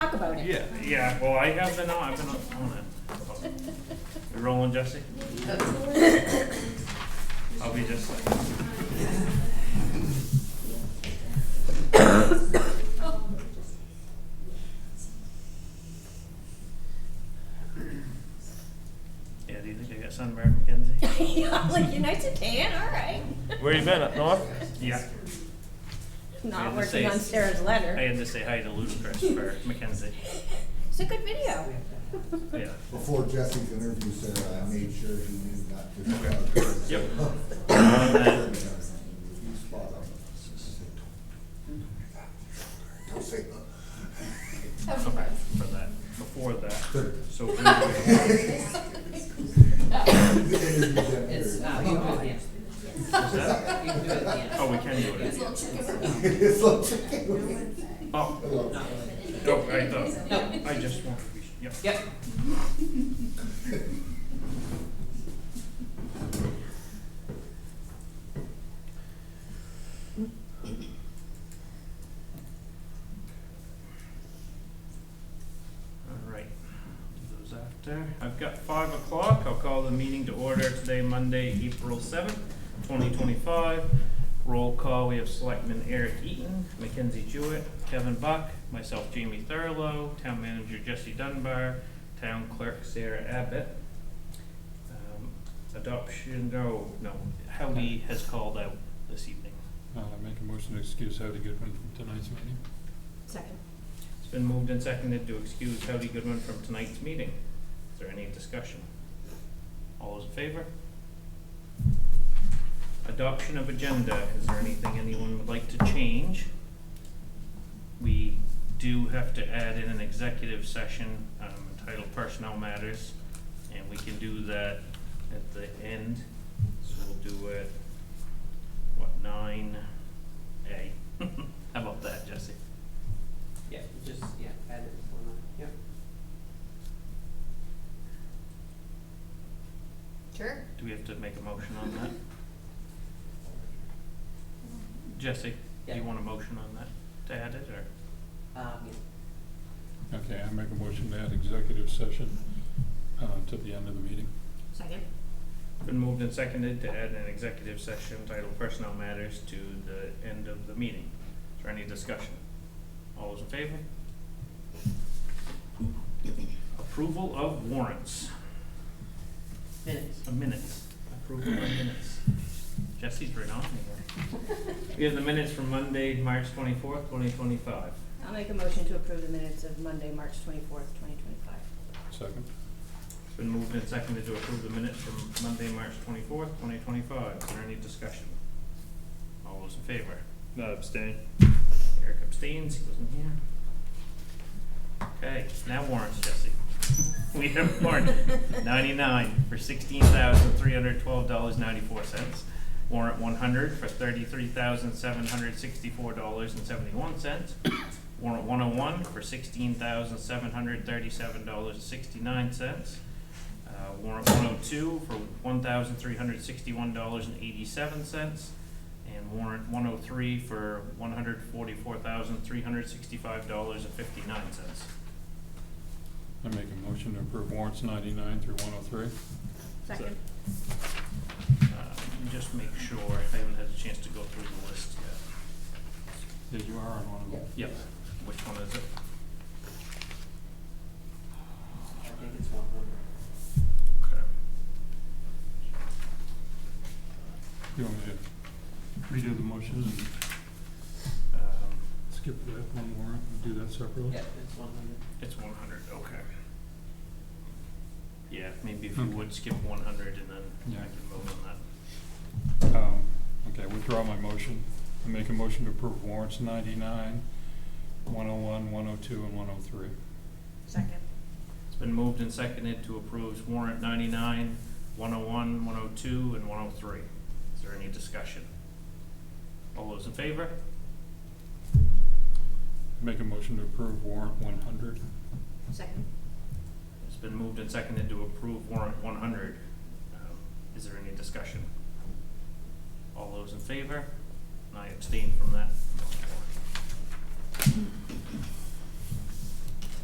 Yeah, yeah, well, I have been on, I've been on it. You rolling, Jesse? I'll be just like. Yeah, do you think I got sunburned, Mackenzie? I'm like, you're nice and tan, all right. Where you been, up north? Yeah, Not Yeah, working on this is- Sarah's I letter. had to say hi to Ludacris for Mackenzie, It's a good video. yeah. Before Jesse's interview, Sarah, I made sure he knew not to. shout. Yep. You spot on. Don't say uh. Come back for that, before that, that. so. Is It's, uh, you do it again. that, You can do it again. oh, we can do it again. It's like chicken. Oh, Hello. no, I thought, No, I just want to be, yep. yep. All right, do those after. I've got five o'clock. I'll call the meeting to order today, Monday, April seventh, twenty twenty-five. Roll call, we have Selectman Eric Eaton, Mackenzie Jewett, Kevin Buck, myself Jamie Thurlow, Town Manager Jesse Dunbar, Town Clerk Sarah Abbott. Um, Adoption, no, no, Howdy has called out this evening. Uh, make a motion to excuse Howdy Goodwin from tonight's meeting. Second. It's been moved and seconded to excuse Howdy Goodwin from tonight's meeting. Is there any discussion? All those in favor? Adoption of agenda, is there anything anyone would like to change? We do have to add in an executive session um, entitled Personnel Matters, and we can do that at the end. So we'll do it, what, nine A? How about that, Jesse? Yeah, just, yeah, add it before nine, yep. Sure. Do we have to make a motion on that? Jesse, do you Yeah. want a motion on that to add it, or? Um, Okay, I make a motion to add executive session, uh, to the end of the meeting. Second. Been moved and seconded to add an executive session titled Personnel Matters to the end of the meeting. Is there any discussion? All those in favor? Approval of warrants, yeah, minutes. uh, minutes, approval of minutes. Jesse's right on here. We have the minutes from Monday, March twenty-fourth, twenty twenty-five. I'll make a motion to approve the minutes of Monday, March twenty-fourth, twenty twenty-five. Second? It's been moved and seconded to approve the minutes from Monday, March twenty-fourth, twenty twenty-five. Is there any discussion? All those in favor? No, abstain. Eric abstains, he wasn't here. Okay, now warrants, Jesse. We have warrant ninety-nine for sixteen thousand three hundred twelve dollars ninety-four cents. Warrant one hundred for thirty-three thousand seven hundred sixty-four dollars and seventy-one cents. Warrant one oh one for sixteen thousand seven hundred thirty-seven dollars and sixty-nine cents. Uh, warrant one oh two for one thousand three hundred sixty-one dollars and eighty-seven cents. And warrant one oh three for one hundred forty-four thousand three hundred sixty-five dollars and fifty-nine cents. I make a motion to approve warrants ninety-nine through one oh three. Second. Um, Just make sure, I haven't had a chance to go through the list Yeah, you are on one of them. yet. Yep, which one is it? I think it's one hundred. Okay. You want me to redo the motion and Um, skip that one warrant and do that separately? Yep, it's one hundred. It's one hundred, okay. Yeah, maybe if you Okay. would skip one hundred and then I Yeah. can vote on that. Um, okay, withdraw my motion. I make a motion to approve warrants ninety-nine, one oh one, one oh two, and one oh three. Second. It's been moved and seconded to approve warrant ninety-nine, one oh one, one oh two, and one oh three. Is there any discussion? All those in favor? Make a motion to approve warrant one hundred. Second. It's been moved and seconded to approve warrant one hundred. Um, Is there any discussion? All those in favor? And I abstain from that.